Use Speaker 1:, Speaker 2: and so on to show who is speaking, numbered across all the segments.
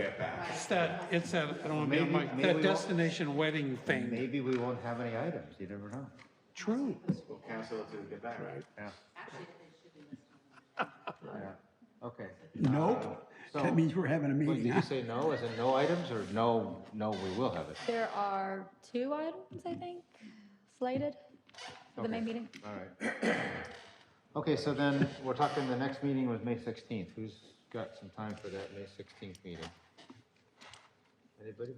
Speaker 1: it back.
Speaker 2: It's that, it's that, I don't want to be on
Speaker 3: Maybe-
Speaker 2: my,
Speaker 3: maybe
Speaker 2: that
Speaker 3: we won't-
Speaker 2: destination wedding thing.
Speaker 3: Maybe we won't have any items, you never know.
Speaker 2: True.
Speaker 1: We'll cancel it till we get back. Right.
Speaker 3: Yeah,
Speaker 4: Actually, they should be listed on the
Speaker 3: yeah, okay.
Speaker 5: Nope.
Speaker 3: So-
Speaker 5: That means we're having a
Speaker 3: What, did
Speaker 5: meeting,
Speaker 3: you
Speaker 5: huh?
Speaker 3: say no, is it no items, or no, no, we will have it?
Speaker 6: There are two items, I think, slated for the May
Speaker 3: Okay.
Speaker 6: meeting.
Speaker 3: All right. Okay, so then, we're talking, the next meeting was May sixteenth, who's got some time for that May sixteenth meeting? Anybody?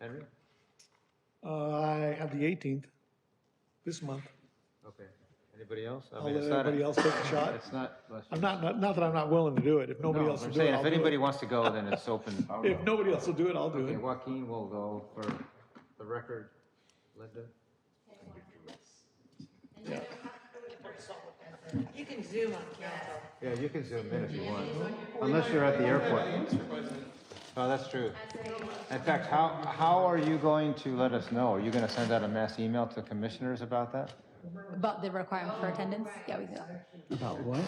Speaker 3: Henry?
Speaker 7: Uh, I have the 18th this month.
Speaker 3: Okay, anybody else? I
Speaker 7: I'll
Speaker 3: mean,
Speaker 7: let
Speaker 3: it's not a-
Speaker 7: everybody else take a shot.
Speaker 3: It's not. let's-
Speaker 7: I'm not, not, not that I'm not willing to do it. If nobody
Speaker 3: No,
Speaker 7: else will
Speaker 3: I'm
Speaker 7: do it,
Speaker 3: saying,
Speaker 7: I'll
Speaker 3: if
Speaker 7: do
Speaker 3: anybody
Speaker 7: it.
Speaker 3: wants to go, then it's open.
Speaker 7: If nobody else will do it, I'll do
Speaker 3: Okay,
Speaker 7: it.
Speaker 3: Joaquin will go for the record, Linda.
Speaker 4: agenda. You can zoom on council.
Speaker 3: Yeah, you can zoom in if you want, unless you're at the airport. Oh, that's true. In fact, how, how are you going to let us know? Are you gonna send out a mass email to commissioners about that?
Speaker 6: About the requirement for attendance? Yeah, we can do that.
Speaker 5: About what?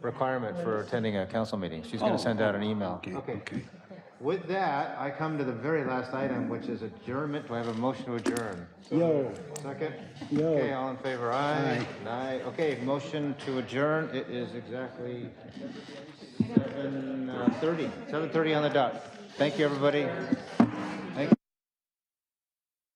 Speaker 3: Requirement for attending a council meeting, she's gonna send out an email.
Speaker 5: Oh. Okay, okay.
Speaker 3: With that, I come to the very last item, which is adjournment. Do I have a motion to adjourn?
Speaker 5: Yo.
Speaker 3: Second?
Speaker 5: No.
Speaker 3: Okay, all in favor, aye. Aye. Okay, motion to adjourn, it is exactly seven uh, thirty, seven thirty on the dot. Thank you, everybody.